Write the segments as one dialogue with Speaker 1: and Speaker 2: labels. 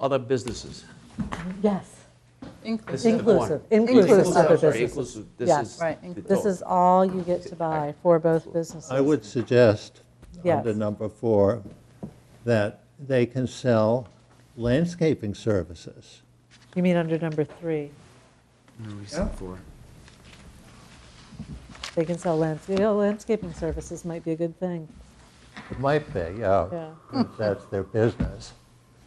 Speaker 1: other businesses.
Speaker 2: Yes,
Speaker 1: This
Speaker 3: Inclusive.
Speaker 1: is the point.
Speaker 2: Inclusive, inclusive
Speaker 3: other
Speaker 1: sorry,
Speaker 2: businesses.
Speaker 1: Inclusive, this
Speaker 2: Yeah.
Speaker 1: is.
Speaker 3: Right,
Speaker 1: the
Speaker 3: inclusive.
Speaker 2: this
Speaker 1: total.
Speaker 2: is all you get to buy for both businesses.
Speaker 4: I would suggest,
Speaker 2: Yes.
Speaker 4: under number four, that they can sell landscaping services.
Speaker 2: You mean under number three,
Speaker 5: No, we said four.
Speaker 2: they can sell landscaping, landscaping services might be a good thing,
Speaker 4: It might be, yeah,
Speaker 2: Yeah.
Speaker 4: if that's their business.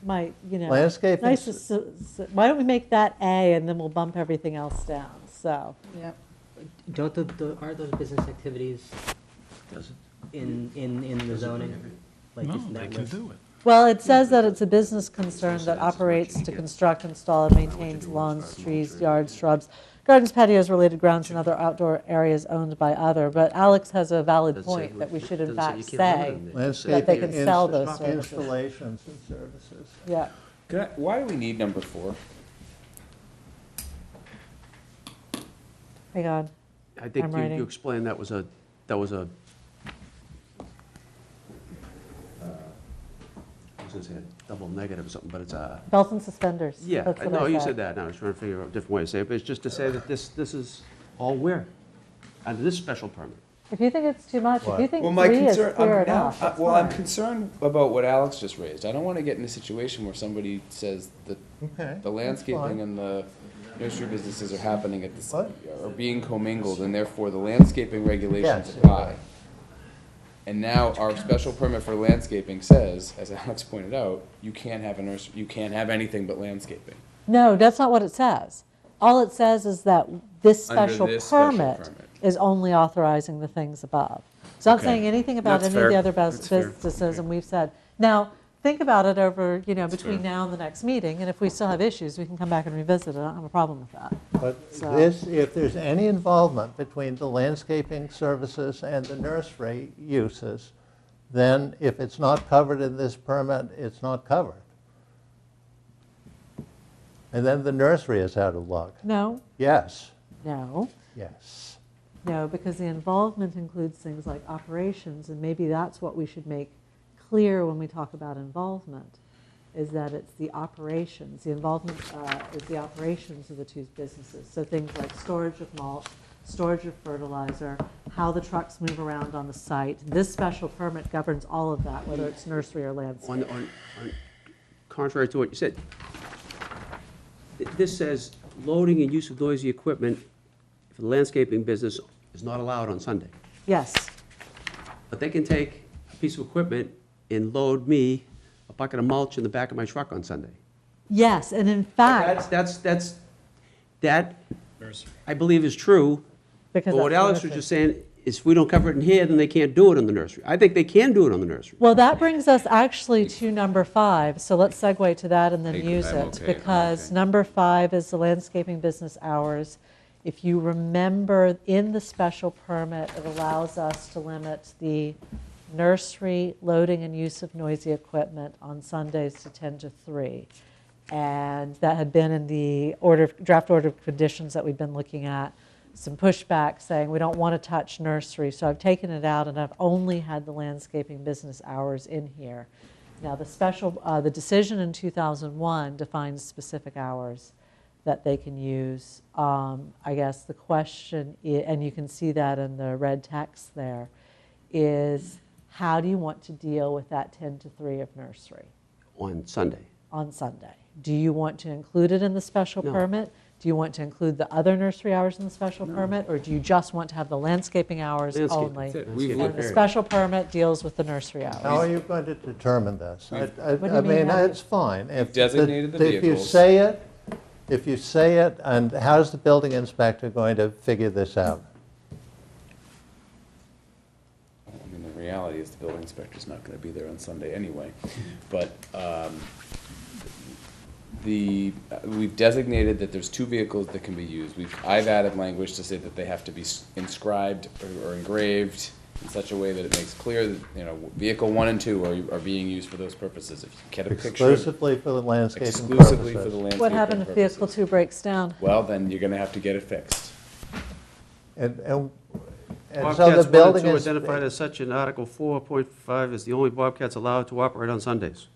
Speaker 2: might, you know.
Speaker 4: Landscaping
Speaker 2: Nice,
Speaker 4: s-
Speaker 2: to s- s- why don't we make that A and then we'll bump everything else down, so.
Speaker 3: Yep.
Speaker 6: Don't the, the, aren't those business activities
Speaker 1: Doesn't-
Speaker 6: in, in, in the zoning? Like,
Speaker 5: No,
Speaker 6: isn't
Speaker 5: they
Speaker 6: that
Speaker 5: can
Speaker 6: list?
Speaker 5: do it.
Speaker 2: Well, it says that it's a business concern that operates to construct, install, and maintains lawns, trees, yards, shrubs, gardens, patios, related grounds, and other outdoor areas owned by other. But Alex has a valid point that we should in fact say,
Speaker 4: Landscaping.
Speaker 2: they can sell
Speaker 4: ins-
Speaker 2: those services.
Speaker 4: Installations and services.
Speaker 2: yeah,
Speaker 7: Could I- Why do we need number four?
Speaker 2: hang on.
Speaker 1: I think
Speaker 2: I'm
Speaker 1: you-
Speaker 2: writing.
Speaker 1: you explained that was a, that was a. uh, I was gonna say a double negative or something, but it's a.
Speaker 2: Belt and suspenders.
Speaker 1: Yeah,
Speaker 2: that's
Speaker 1: I-
Speaker 2: what
Speaker 1: no,
Speaker 2: I
Speaker 1: you said that, now I was trying to figure out a different way to say it, but it's just to say that this, this is all where? Under this special permit.
Speaker 2: If you think it's too much, if you
Speaker 4: What?
Speaker 2: think
Speaker 7: Well, my
Speaker 2: three is
Speaker 7: concern,
Speaker 2: clear
Speaker 7: I'm, now,
Speaker 2: enough,
Speaker 7: I-
Speaker 2: that's
Speaker 7: well, I'm
Speaker 2: fine.
Speaker 7: concerned about what Alex just raised. I don't want to get in a situation where somebody says that
Speaker 4: Okay,
Speaker 7: the
Speaker 4: that's fine.
Speaker 7: landscaping and the nursery businesses are happening at the, s-
Speaker 4: What?
Speaker 7: are being commingled, and therefore the landscaping regulations
Speaker 4: Yes.
Speaker 7: apply. And now our special permit for landscaping says, as Alex pointed out, you can't have a nursery, you can't have anything but landscaping.
Speaker 2: No, that's not what it says. All it says is that this
Speaker 7: Under
Speaker 2: special
Speaker 7: this special
Speaker 2: permit
Speaker 7: permit.
Speaker 2: is only authorizing the things above. It's not
Speaker 7: Okay.
Speaker 2: saying anything about
Speaker 7: That's
Speaker 2: any of the
Speaker 7: fair.
Speaker 2: other bus-
Speaker 7: That's fair.
Speaker 2: businesses, and we've said, now, think about it over, you know, between
Speaker 7: fair.
Speaker 2: now and the next meeting, and if we still have issues, we can come back and revisit it. I don't have a problem with that.
Speaker 4: But
Speaker 2: So-
Speaker 4: this, if there's any involvement between the landscaping services and the nursery uses, then if it's not covered in this permit, it's not covered. And then the nursery is out of luck.
Speaker 2: No,
Speaker 4: Yes,
Speaker 2: no,
Speaker 4: yes.
Speaker 2: no, because the involvement includes things like operations, and maybe that's what we should make clear when we talk about involvement, is that it's the operations, the involvement uh, is the operations of the two businesses. So things like storage of mulch, storage of fertilizer, how the trucks move around on the site. This special permit governs all of that, whether it's nursery or landscape.
Speaker 1: On, on, on- contrary to what you said, th- this says loading and use of noisy equipment for the landscaping business is not allowed on Sunday.
Speaker 2: Yes,
Speaker 1: But they can take a piece of equipment and load me a bucket of mulch in the back of my truck on Sunday.
Speaker 2: yes, and in fact,
Speaker 1: That's, that's, that's, that, I believe is true.
Speaker 2: Because
Speaker 1: But what
Speaker 2: that's the
Speaker 1: Alex was
Speaker 2: nursery.
Speaker 1: just saying is if we don't cover it in here, then they can't do it in the nursery. I think they can do it on the nursery.
Speaker 2: Well, that brings us actually to number five, so let's segue to that and then
Speaker 7: Hey,
Speaker 2: use
Speaker 7: I'm
Speaker 2: it.
Speaker 7: okay, I'm
Speaker 2: Because
Speaker 7: okay.
Speaker 2: number five is the landscaping business hours. If you remember, in the special permit, it allows us to limit the nursery loading and use of noisy equipment on Sundays to 10 to 3. And that had been in the order, of- draft order of conditions that we've been looking at some pushback saying we don't want to touch nursery, so I've taken it out and I've only had the landscaping business hours in here. Now, the special, uh, the decision in 2001 defines specific hours that they can use. Um, I guess the question, i- and you can see that in the red text there, is how do you want to deal with that 10 to 3 of nursery?
Speaker 1: on Sunday.
Speaker 2: on Sunday. Do you want to include it in the special
Speaker 1: No.
Speaker 2: permit? Do you want to include the other nursery hours in the special permit? Or do you just want to have the landscaping hours
Speaker 1: Landscaping,
Speaker 2: only?
Speaker 1: that's it.
Speaker 7: We've
Speaker 2: And
Speaker 7: looked
Speaker 2: the
Speaker 7: at-
Speaker 2: special permit deals with the nursery
Speaker 4: How
Speaker 2: hours.
Speaker 4: are you going to determine this? I- I
Speaker 2: What do you
Speaker 4: I
Speaker 2: mean,
Speaker 4: mean,
Speaker 2: how do you-
Speaker 4: it's fine. If
Speaker 7: designated the
Speaker 4: If you
Speaker 7: vehicles.
Speaker 4: say it, if you say it, and how's the building inspector going to figure this out?
Speaker 7: I mean, the reality is the building inspector's not gonna be there on Sunday anyway, but, um, the, uh, we've designated that there's two vehicles that can be used. We've, I've added language to say that they have to be s- inscribed or- or engraved in such a way that it makes clear that, you know, vehicle one and two are, are being used for those purposes. If you get a picture
Speaker 4: Exclusively for the landscaping purposes?
Speaker 7: exclusively for the landscaping
Speaker 2: What happened if vehicle
Speaker 7: purposes,
Speaker 2: two breaks down?
Speaker 7: Well, then you're gonna have to get it fixed.
Speaker 4: And, and, and so
Speaker 1: Bobcats
Speaker 4: the
Speaker 1: one and
Speaker 4: building
Speaker 1: two
Speaker 4: is,
Speaker 1: identified as such in Article 4.5 is the only Bobcats allowed to operate on Sundays.